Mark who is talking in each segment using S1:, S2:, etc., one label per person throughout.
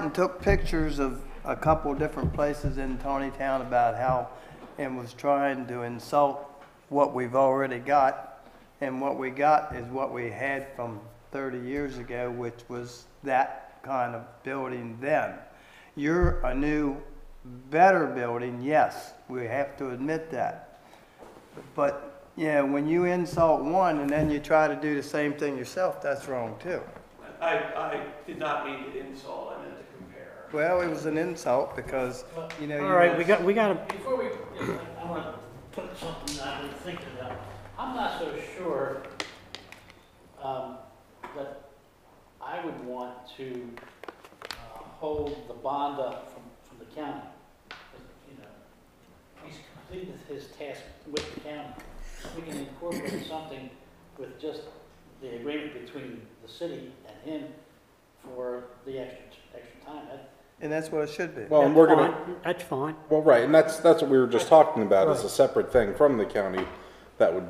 S1: and took pictures of a couple of different places in Tawny Town about how, and was trying to insult what we've already got. And what we got is what we had from thirty years ago, which was that kind of building then. You're a new, better building, yes, we have to admit that. But, yeah, when you insult one and then you try to do the same thing yourself, that's wrong too.
S2: I, I did not mean to insult, I meant to compare.
S1: Well, it was an insult because, you know. you
S3: All right,
S1: were-
S3: we got, we got a,
S4: Before we, I want to put something that I've been thinking about. I'm not so sure um, that I would want to uh, hold the bond up from, from the county. You know, he's completed his task with the county. We can incorporate something with just the agreement between the city and him for the extra, extra time. That-
S1: And that's what it should be.
S5: Well, and we're
S3: that's
S5: gonna,
S3: fine, that's fine.
S5: well, right, and that's, that's what we were just talking about, is a separate thing from the county that would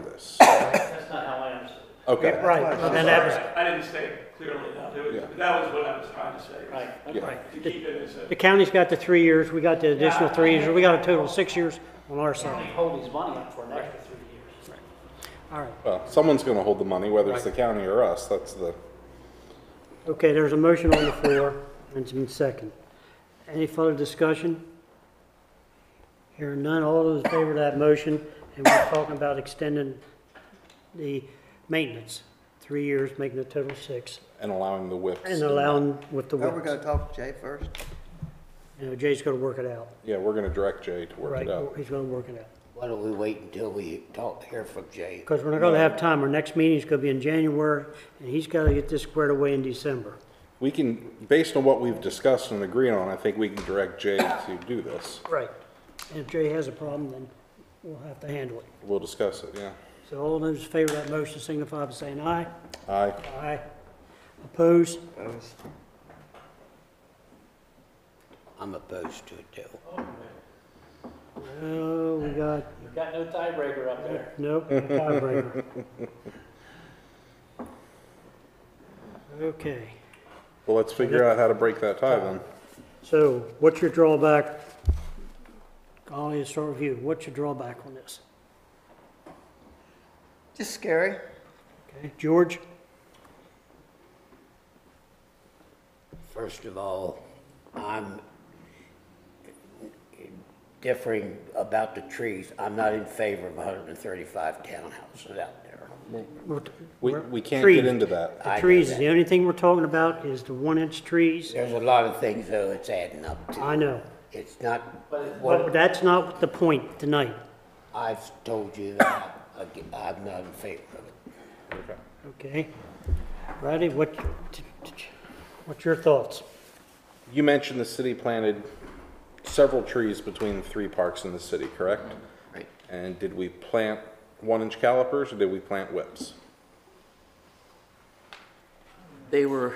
S5: this.
S4: That's not how I understood it.
S5: Okay,
S3: Right,
S1: That's fine.
S3: and that was,
S2: I didn't say it clearly enough, It was-
S5: Yeah.
S2: that was what I was trying to say.
S4: Right,
S5: Yeah.
S4: okay.
S2: To keep it as a,
S3: the county's got the three years, we got the additional three years, we got a total of six years on our
S4: County
S3: side.
S4: hold his money up for an extra three years.
S3: All right,
S5: well, someone's gonna hold the money, whether it's the county or us, that's the,
S3: okay, there's a motion on the floor, and it's been second. Any further discussion? Hearing none, all those in favor of that motion, and we're talking about extending the maintenance, three years, making it total six,
S5: and allowing the whips.
S3: and allowing with the
S1: Now we're
S3: works.
S1: gonna Oh, talk to Jay first.
S3: You know, Jay's gonna work it out,
S5: Yeah, we're gonna direct Jay to work
S3: right,
S5: it out.
S3: he's gonna work it out.
S6: Why don't we wait until we don't hear from Jay?
S3: Because we're not gonna have time, our next meeting's gonna be in January, and he's gotta get this squared away in December.
S5: We can, based on what we've discussed and agreed on, I think we can direct Jay to do this.
S3: Right. And if Jay has a problem, then we'll have to handle it.
S5: We'll discuss it, yeah.
S3: So all those in favor of that motion signify by saying aye.
S5: Aye.
S3: Aye. Opposed?
S6: I'm opposed to it too.
S3: Oh, we got,
S4: You've got no tiebreaker up there.
S3: nope, tiebreaker. Okay,
S5: Well, let's figure out how to break that tie then.
S3: so what's your drawback? Golly, let's start with you. What's your drawback on this?
S1: Just scary.
S3: Okay, George?
S6: First of all, I'm differing about the trees. I'm not in favor of 135 townhouses out there.
S3: We're-
S5: We,
S3: we're-
S5: we can't
S3: trees.
S5: get into that.
S6: I
S3: The
S6: know
S3: trees,
S6: that.
S3: the only thing we're talking about is the one-inch trees.
S6: There's a lot of things though it's adding up to.
S3: I know,
S6: It's not,
S3: but
S6: what,
S3: that's not the point tonight.
S6: I've told you that I- I'm not in favor of it.
S3: Okay. Roddy, what, what's your thoughts?
S5: You mentioned the city planted several trees between the three parks in the city, correct?
S6: Right.
S5: And did we plant one-inch calipers or did we plant whips?
S7: They were,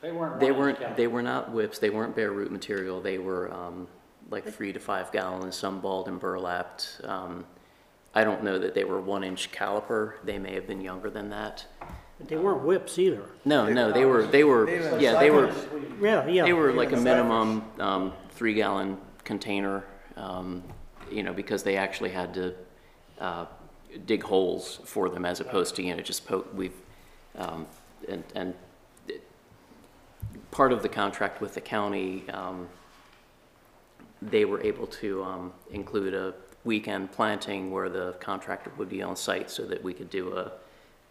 S4: They weren't.
S7: they
S4: running
S7: weren't,
S4: together.
S7: they were not whips, they weren't bare root material, they were, um, like three to five gallons, some balled and burlapped. Um, I don't know that they were one inch caliper, they may have been younger than that.
S3: They weren't whips either.
S7: No, no, they were, they were,
S1: They were
S7: yeah, they were,
S1: cyclists.
S3: Yeah, yeah.
S7: they were like a
S1: cyclists.
S7: minimum, um, three gallon container, um, you know, because they actually had to, uh, dig holes for them as opposed to, you know, just poke, we've, um, and, and part of the contract with the county, um, they were able to um, include a weekend planting where the contractor would be on site so that we could do a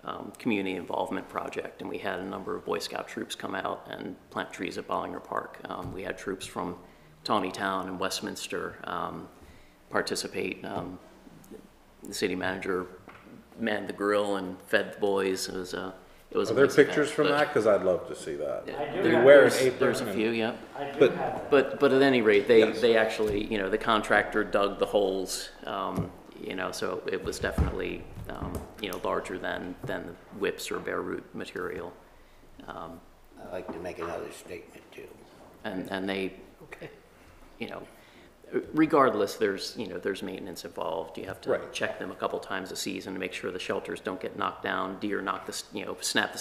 S7: um, community involvement project. And we had a number of Boy Scout troops come out and plant trees at Bollinger Park. Um, We had troops from Tawny Town and Westminster um, participate. Um, The city manager manned the grill and fed the boys. It was a, it was
S5: Are
S7: a
S5: there
S7: nice event,
S5: pictures from
S7: but-
S5: that? Because I'd love to see that.
S7: Yeah.
S4: I do
S7: There-
S4: have
S5: wear an
S7: there's-
S5: apron
S7: There's a
S5: and-
S7: few, yep.
S4: I do
S5: but-
S4: have that.
S7: But, but at any rate, they, they actually, you know, the contractor dug the holes, um, you know, so it was definitely, um, you know, larger than, than the whips or bare root material.
S6: I'd like to make another statement too.
S7: And, and they, you know, regardless, there's, you know, there's maintenance involved. You have to
S5: Right.
S7: check them a couple times a season to make sure the shelters don't get knocked down, deer knock the, s- you know, snap the